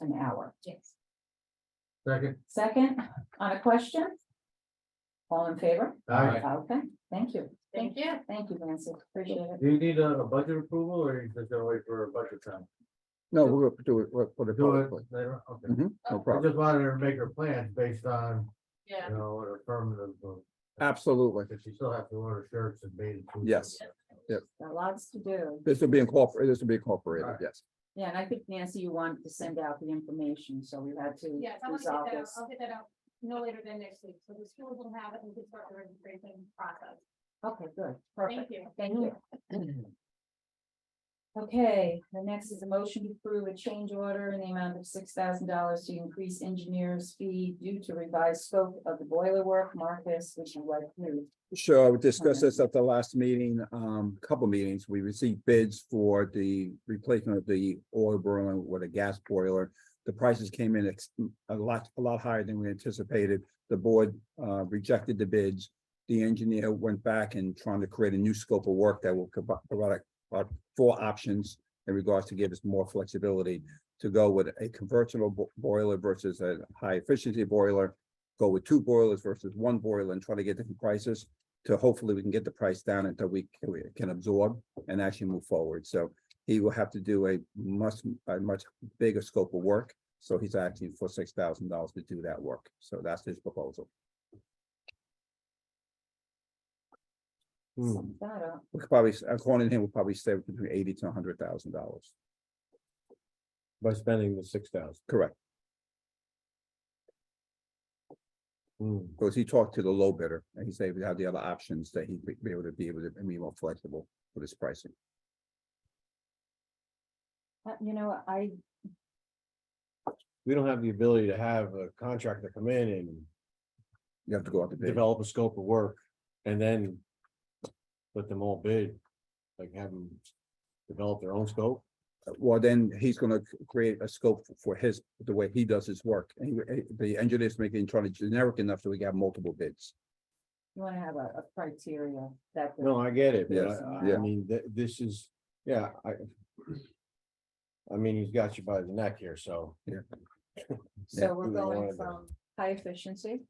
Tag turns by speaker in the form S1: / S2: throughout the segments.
S1: an hour.
S2: Yes.
S3: Second.
S1: Second, on a question? All in favor?
S3: Aye.
S1: Okay, thank you.
S2: Thank you.
S1: Thank you, Nancy. Appreciate it.
S3: Do you need a, a budget approval or is it wait for a budget time?
S4: No, we're gonna do it, we'll put it
S3: Do it
S4: publicly,
S3: later, okay.
S4: no
S3: I
S4: problem,
S3: just wanted her to make her plans based on,
S2: Yeah.
S3: you know, an affirmative, vote,
S4: absolutely,
S3: because she still has to order shirts and bathing. suits.
S4: Yes.
S1: Got lots to do.
S4: this will be incorporated, this will be incorporated,
S3: Alright.
S4: yes.
S1: Yeah, and I think Nancy, you wanted to send out the information, so we had to
S2: Yes, I want to get
S1: resolve
S2: that out,
S1: this.
S2: I'll get that out no later than next week, so the schools will have it and can start the registration process.
S1: Okay, good,
S2: Thank
S1: perfect.
S2: you.
S1: Thank you. Okay, the next is a motion to approve a change order in the amount of six thousand dollars to increase engineer's fee due to revised scope of the boiler work. Marcus, would you like to?
S4: Sure, we discussed this at the last meeting, um, couple meetings, we received bids for the replacement of the oil boiler with a gas boiler. The prices came in ex- a lot, a lot higher than we anticipated, the board, uh, rejected the bids. The engineer went back and trying to create a new scope of work that will provide, provide about four options in regards to give us more flexibility to go with a convertible bo- boiler versus a high efficiency boiler, go with two boilers versus one boiler and try to get different prices to hopefully we can get the price down until we can- we can absorb and actually move forward. So he will have to do a much, a much bigger scope of work. So he's asking for six thousand dollars to do that work. So that's his proposal.
S3: Hmm.
S1: sum That up.
S4: We could probably, according to him, we'll probably save between eighty to hundred thousand dollars.
S3: By spending the six thousand.
S4: Correct.
S5: Hmm.
S4: Because he talked to the low bidder and he said we have the other options that he'd be- be able to be able to be more flexible with his pricing.
S1: Uh, You know, I,
S5: we don't have the ability to have a contractor come in and
S4: You have to go out to bid.
S5: develop a scope of work and then let them all bid, like have them develop their own scope.
S4: Well, then he's gonna c- create a scope f- for his, the way he does his work. And he- eh, the engineer's making, trying to generic enough so we can have multiple bids.
S1: you want to have a, a criteria that. the-
S5: No, I get it, but
S4: Yes,
S5: I, I
S4: yeah.
S5: mean, th- this is, yeah, I I mean, he's got you by the neck here, so.
S1: So
S4: yeah,
S1: we're
S5: we don't
S1: going
S5: wanna do-
S1: from high efficiency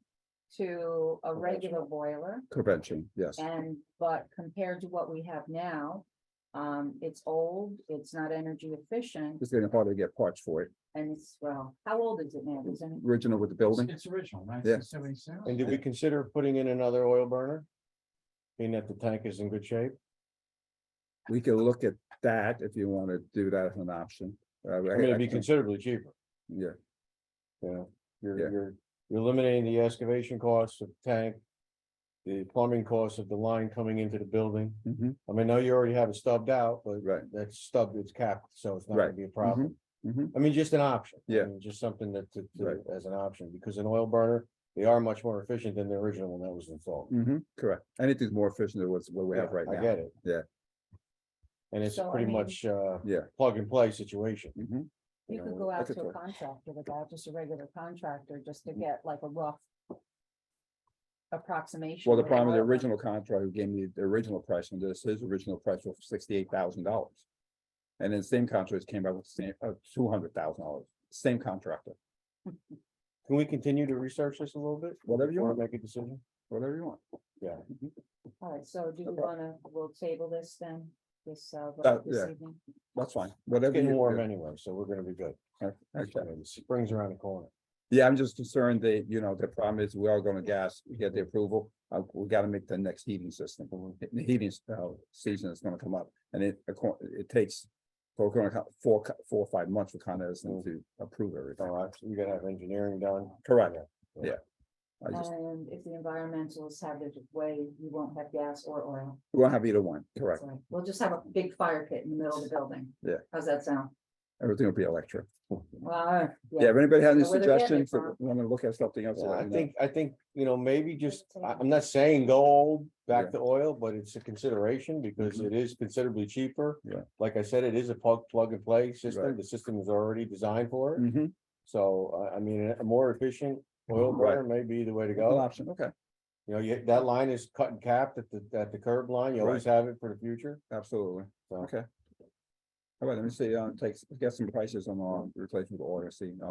S1: to a regular boiler.
S4: Convention, yes.
S1: And, but compared to what we have now, um, it's old, it's not energy efficient,
S4: It's getting harder to get parts for it.
S1: and it's, well, how old is it now? Is it-
S4: Original with the building,
S3: It's original,
S4: Yeah.
S3: seventy-six.
S5: And did we consider putting in another oil burner? Being that the tank is in good shape?
S4: we can look at that if you want to do that as an option. Uh,
S5: I mean,
S4: I-
S5: it'd be
S4: I-
S5: considerably cheaper.
S4: Yeah,
S5: You're,
S4: Yeah.
S5: you're, you're eliminating the excavation costs of tank. The plumbing costs of the line coming into the building.
S4: mhm,
S5: I mean, I know you already have it stubbed out, but
S4: right.
S5: that's stubbed, it's capped, so it's not gonna
S4: Right.
S5: be a problem.
S4: mhm.
S5: I mean, just an option. I
S4: Yeah.
S5: mean, Just something that, to- to-
S4: Right.
S5: as an option, because an oil burner, they are much more efficient than the original one that was installed.
S4: mhm, correct. Anything's more efficient than what's, what we have
S5: Yeah,
S4: right
S5: I
S4: now.
S5: get it.
S4: Yeah.
S5: And it's
S1: So, I
S5: pretty
S1: mean-
S5: much, uh.
S4: Yeah.
S5: Plug and play situation.
S4: Mhm,
S1: You
S5: know,
S1: could go out
S4: that's a Mm-hmm.
S1: to a
S4: choice.
S1: contractor without just a regular contractor, just to get like a rough approximation.
S4: Well, the
S1: of
S4: problem with the
S1: oil.
S4: original contract, who gave me the original price on this, his original price was sixty-eight thousand dollars. And then same contractors came out with same, uh, two hundred thousand dollars, same contractor,
S5: Can we continue to research this a little bit?
S4: whatever you
S5: Before we
S4: want,
S5: Make a decision?
S4: whatever you want.
S1: All right, so do you
S4: Okay.
S1: wanna, we'll table this then, this, uh, vote
S4: That-
S1: this
S4: yeah.
S1: evening?
S4: That's fine, whatever.
S5: Getting
S4: you-
S5: warm anyway, so we're gonna be good.
S4: Okay, okay.
S5: Okay, Spring's around the corner.
S4: Yeah, I'm just concerned that, you know, the problem is we are gonna gas, we get the approval, uh, we gotta make the next heating system. The heating uh, season is gonna come up and it, acco- it takes four, four, four, five months for Con Edison to approve everything.
S5: Mm. All right, so you gotta have engineering done.
S4: Correct,
S5: Yeah.
S4: yeah. I just,
S1: And if the environmentalists have their way, you won't have gas or oil.
S4: we won't have either one, correct.
S1: So We'll just have a big fire pit in the middle of the building.
S4: Yeah.
S1: How's that sound?
S4: Everything will be electric.
S1: Wow.
S4: Yeah, if anybody has any
S1: So where they're getting it
S4: suggestions,
S1: from.
S4: wanna look at something else.
S5: Yeah,
S4: let
S5: I
S4: me know.
S5: think, I think, you know, maybe just, I,
S1: Entertainment.
S5: I'm not saying go old,
S4: Yeah.
S5: back to oil, but it's a consideration because
S4: Mhm.
S5: it is considerably cheaper.
S4: Yeah.
S5: Like I said, it is a plug, plug and play system.
S4: Right.
S5: The system is already designed for it.
S4: Mhm,
S5: So, I, I mean, a more efficient oil
S4: Right.
S5: burner may be the way to
S4: an
S5: go.
S4: option, okay,
S5: You know, you, that line is cut and capped at the, at the curb line. You always have it for the future.
S4: absolutely,
S5: So.
S4: okay. All right, let me see, uh, take, get some prices on our replacement order, see, I'll